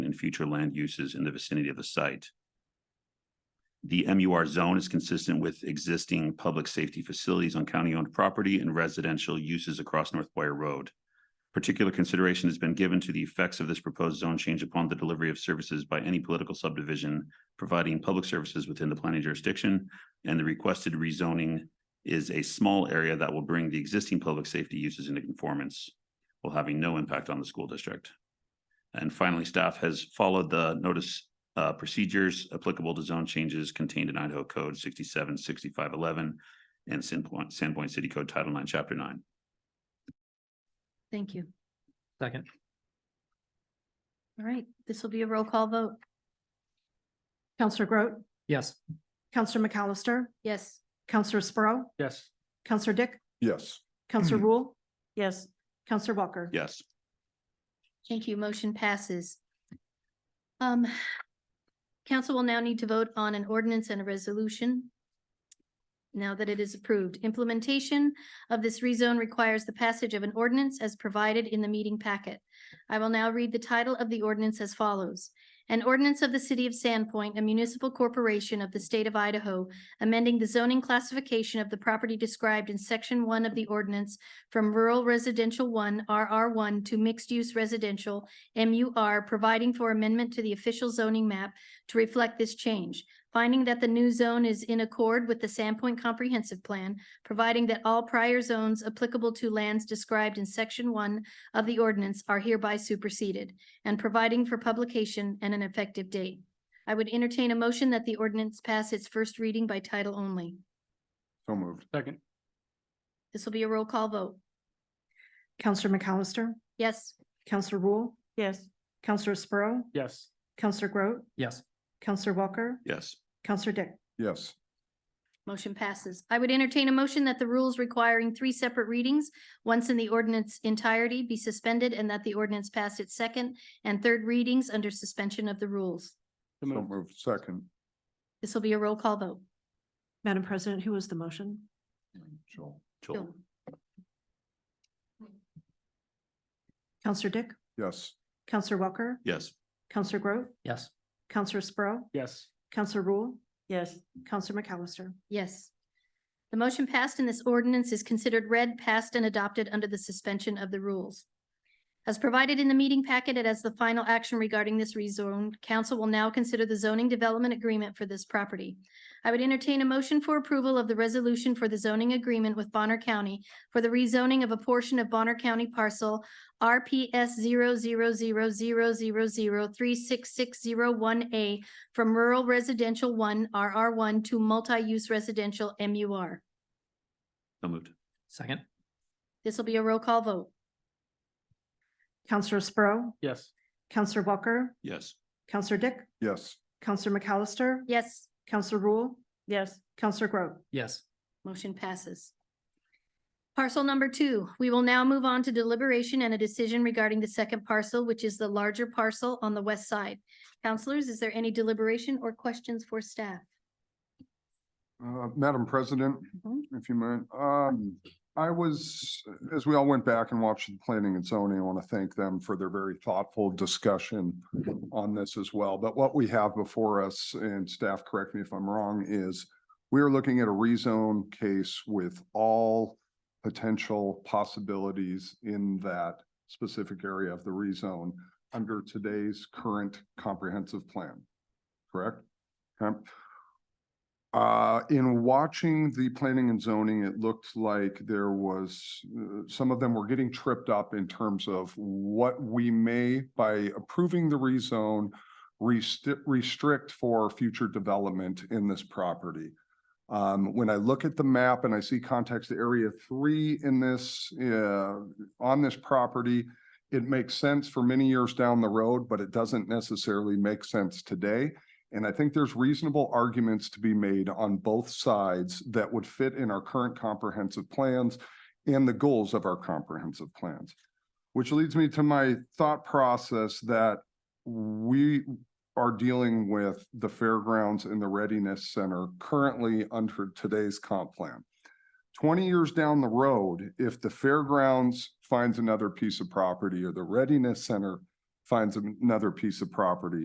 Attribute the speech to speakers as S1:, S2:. S1: and future land uses in the vicinity of the site. The MUR zone is consistent with existing public safety facilities on county-owned property and residential uses across North Boyer Road. Particular consideration has been given to the effects of this proposed zone change upon the delivery of services by any political subdivision providing public services within the planning jurisdiction, and the requested rezoning is a small area that will bring the existing public safety uses into conformance while having no impact on the school district. And finally, staff has followed the notice uh, procedures applicable to zone changes contained in Idaho Code sixty-seven, sixty-five, eleven and Sandpoint, Sandpoint City Code Title Nine, Chapter Nine.
S2: Thank you.
S3: Second,
S2: All right, this will be a roll call vote. Counselor Groot,
S3: yes.
S2: Counselor McAllister. Yes. Counselor Sprow,
S3: Yes.
S2: Counselor Dick,
S4: yes,
S2: Counselor Rule. Yes. Counselor Walker.
S1: Yes,
S2: Thank you. Motion passes. Um, council will now need to vote on an ordinance and a resolution. Now that it is approved, implementation of this rezone requires the passage of an ordinance as provided in the meeting packet. I will now read the title of the ordinance as follows. An ordinance of the city of Sandpoint, a municipal corporation of the state of Idaho, amending the zoning classification of the property described in section one of the ordinance from rural residential one, RR one, to mixed-use residential, MUR, providing for amendment to the official zoning map to reflect this change, finding that the new zone is in accord with the Sandpoint Comprehensive Plan, providing that all prior zones applicable to lands described in section one of the ordinance are hereby superseded, and providing for publication and an effective date. I would entertain a motion that the ordinance pass its first reading by title only.
S4: so moved,
S3: Second,
S2: This will be a roll call vote.
S5: Counselor McAllister,
S2: Yes?
S5: Counselor Rule,
S6: yes,
S5: Counselor Sprow,
S3: yes.
S5: Counselor Groot,
S3: Yes.
S5: Counselor Walker,
S1: yes,
S5: Counselor Dick,
S4: yes,
S2: Motion passes. I would entertain a motion that the rules requiring three separate readings, once in the ordinance entirety, be suspended and that the ordinance pass its second and third readings under suspension of the rules.
S3: So
S4: so
S3: moved.
S4: moved, second,
S2: This will be a roll call vote.
S5: Madam President, who was the motion?
S4: Joel,
S1: Joel,
S5: Counselor Dick,
S4: yes,
S5: Counselor Walker,
S1: yes,
S5: Counselor Groot,
S3: Yes.
S5: Counselor Sprow,
S3: Yes.
S5: Counselor Rule,
S6: yes,
S5: Counselor McAllister.
S2: Yes. The motion passed and this ordinance is considered read, passed, and adopted under the suspension of the rules. As provided in the meeting packet and as the final action regarding this rezone, council will now consider the zoning development agreement for this property. I would entertain a motion for approval of the resolution for the zoning agreement with Bonner County for the rezoning of a portion of Bonner County parcel RPS 000000366001 A from rural residential one, RR one, to multi-use residential, MUR.
S1: so moved,
S3: Second,
S2: This will be a roll call vote.
S5: Counselor Sprow,
S3: yes.
S5: Counselor Walker,
S1: yes,
S5: Counselor Dick,
S4: yes,
S5: Counselor McAllister,
S2: Yes,
S5: Counselor Rule,
S6: yes,
S5: Counselor Groot.
S3: Yes.
S2: motion passes. Parcel number two, we will now move on to deliberation and a decision regarding the second parcel, which is the larger parcel on the west side. Counselors, is there any deliberation or questions for staff?
S4: Uh, Madam President, if you mind, um, I was, as we all went back and watched the planning and zoning, I want to thank them for their very thoughtful discussion on this as well. But what we have before us, and staff, correct me if I'm wrong, is we are looking at a rezone case with all potential possibilities in that specific area of the rezone under today's current comprehensive plan, correct? Okay. Uh, in watching the planning and zoning, it looked like there was, uh, some of them were getting tripped up in terms of what we may, by approving the rezone, resti- restrict for future development in this property. Um, when I look at the map and I see context area three in this, uh, on this property, it makes sense for many years down the road, but it doesn't necessarily make sense today. And I think there's reasonable arguments to be made on both sides that would fit in our current comprehensive plans and the goals of our comprehensive plans. Which leads me to my thought process that we are dealing with the fairgrounds and the readiness center currently under today's comp plan. Twenty years down the road, if the fairgrounds finds another piece of property or the readiness center finds another piece of property